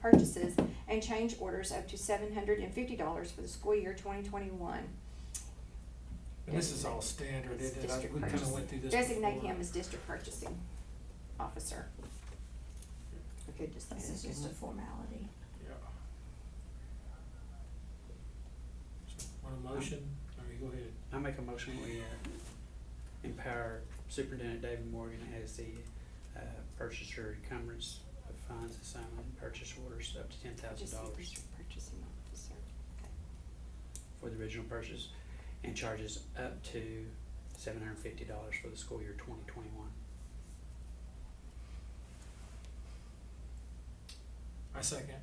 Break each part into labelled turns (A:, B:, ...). A: purchases and change orders up to seven hundred and fifty dollars for the school year twenty twenty-one.
B: And this is all standard,
A: It's
B: isn't it? I-
A: district
B: We kinda
A: purchase.
B: went through this before.
A: Designate him as district purchasing officer. We could just say
C: This is just a formality.
B: Yeah. So, Want a motion? All right, go ahead.
D: I make a motion we uh, empower Superintendent David Morgan as the uh, purchaser encumbrance of funds assignment and purchase orders up to ten thousand
A: Just say
D: dollars
A: district purchasing officer.
D: for the original purchase and charges up to seven hundred and fifty dollars for the school year twenty twenty-one.
B: I second.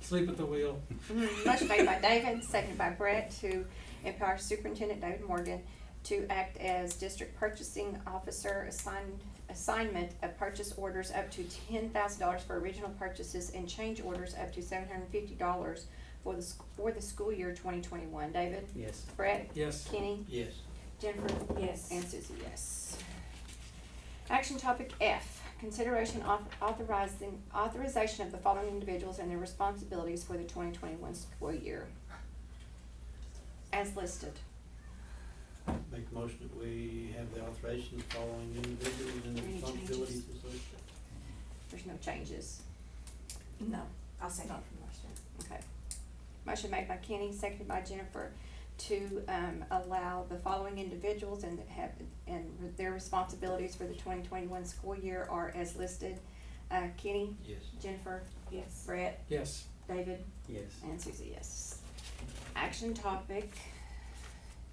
B: Sleep at the wheel.
A: Motion Mm-hmm. made by David, seconded by Brett to empower Superintendent David Morgan to act as district purchasing officer assigned, assignment of purchase orders up to ten thousand dollars for original purchases and change orders up to seven hundred and fifty dollars for the, sc- for the school year twenty twenty-one. David?
D: Yes.
A: Brett?
B: Yes.
A: Kenny?
D: Yes.
A: Jennifer?
C: Yes.
A: And Susie, yes. Action topic F, consideration of authorizing, authorization of the following individuals and their responsibilities for the twenty twenty-one school year. As listed.
E: Make a motion that we have the authorization of following individuals and the
A: Any changes?
E: responsibilities associated.
A: There's no changes.
C: No, I'll second.
A: Not from last year. Okay. Motion made by Kenny, seconded by Jennifer, to, um, allow the following individuals and that have, and their responsibilities for the twenty twenty-one school year are as listed. Uh, Kenny,
E: Yes.
A: Jennifer,
C: Yes.
A: Brett,
B: Yes.
A: David,
D: Yes.
A: And Susie, yes. Action topic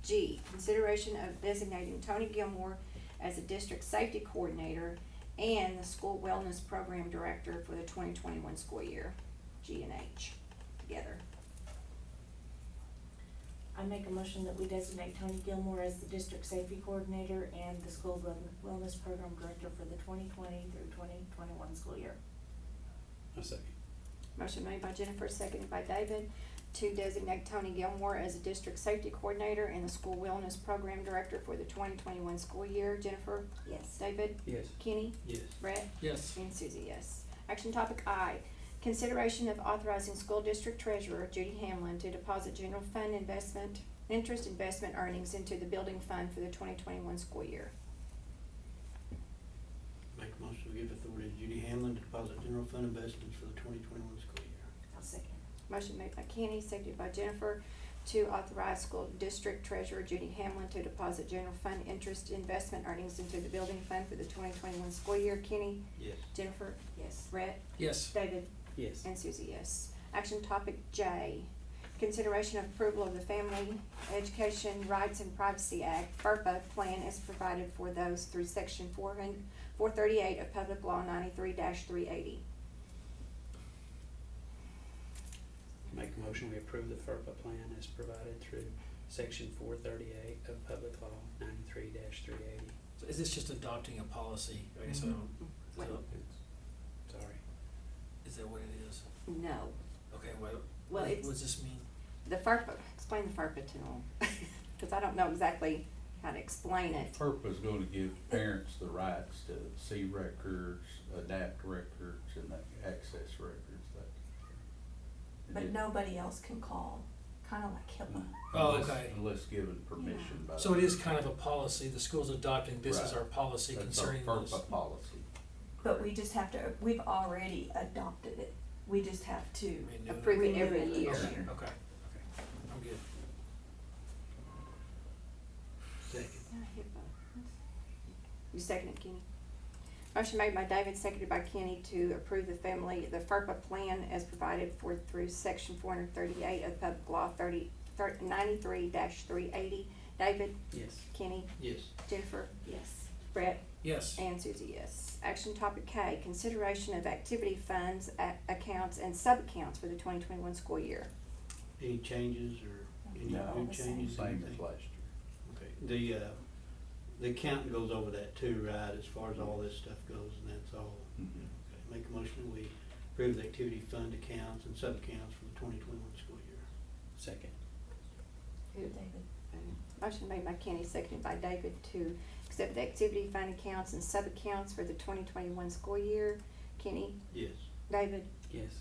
A: G, consideration of designating Tony Gilmore as a district safety coordinator and the school wellness program director for the twenty twenty-one school year, G and H, together.
C: I make a motion that we designate Tony Gilmore as the district safety coordinator and the school wel- wellness program director for the twenty twenty through twenty twenty-one school year.
D: I second.
A: Motion made by Jennifer, seconded by David, to designate Tony Gilmore as a district safety coordinator and the school wellness program director for the twenty twenty-one school year. Jennifer,
C: Yes.
A: David,
D: Yes.
A: Kenny,
E: Yes.
A: Brett,
B: Yes.
A: And Susie, yes. Action topic I, consideration of authorizing school district treasurer Judy Hamlin to deposit general fund investment, interest investment earnings into the building fund for the twenty twenty-one school year.
E: Make a motion to give authority to Judy Hamlin to deposit general fund investments for the twenty twenty-one school year.
C: I'll second.
A: Motion made by Kenny, seconded by Jennifer, to authorize school district treasurer Judy Hamlin to deposit general fund interest investment earnings into the building fund for the twenty twenty-one school year. Kenny,
E: Yes.
A: Jennifer,
C: Yes.
A: Brett,
B: Yes.
A: David,
D: Yes.
A: And Susie, yes. Action topic J, consideration of approval of the Family Education Rights and Privacy Act, FERPA plan as provided for those through section four hundred, four thirty-eight of Public Law ninety-three three eighty.
D: Make a motion we approve the FERPA plan as provided through section four thirty-eight of Public Law ninety-three three eighty.
B: So Is this just adopting a policy? I guess I don't,
A: Mm-hmm.
B: is that-
D: Sorry.
B: is that what it is?
A: No,
B: Okay, what,
A: well,
B: what
A: it's,
B: does this mean?
A: the FERPA, explain the FERPA to them, cause I don't know exactly how to explain it.
F: FERPA is gonna give parents the rights to see records, adapt records, and access records, that.
G: But nobody else can call, kind of like HIPAA.
B: Oh,
F: Unless-
B: okay.
F: Unless given permission by.
B: So it is kind of a policy, the school's adopting, this is
F: Right.
B: our policy
F: That's our
B: concerning this.
F: FERPA policy.
G: But we just have to, we've already adopted it. We just have to
B: Renew it.
A: Approve it every
G: Renew it
A: year.
B: Okay,
G: each year.
B: okay, okay. I'm good.
E: Second.
A: You second it, Kenny? Motion made by David, seconded by Kenny to approve the family, the FERPA plan as provided for through section four hundred thirty-eight of Public Law thirty, thir- ninety-three dash three eighty. David,
D: Yes.
A: Kenny,
E: Yes.
A: Jennifer,
C: Yes.
A: Brett,
B: Yes.
A: and Susie, yes. Action topic K, consideration of activity funds, a- accounts, and sub-accounts for the twenty twenty-one school year.
E: Any changes or any
F: No.
E: new
G: The same.
E: changes?
F: Same as
E: anything?
F: last year.
E: Okay. The, uh, the accountant goes over that too, right, as far as all this stuff goes, and that's all.
F: Mhm.
E: Okay. Make a motion we approve the activity fund accounts and sub-accounts for the twenty twenty-one school year.
D: Second.
G: David.
A: Motion made by Kenny, seconded by David to accept the activity fund accounts and sub-accounts for the twenty twenty-one school year. Kenny,
E: Yes.
A: David,
D: Yes.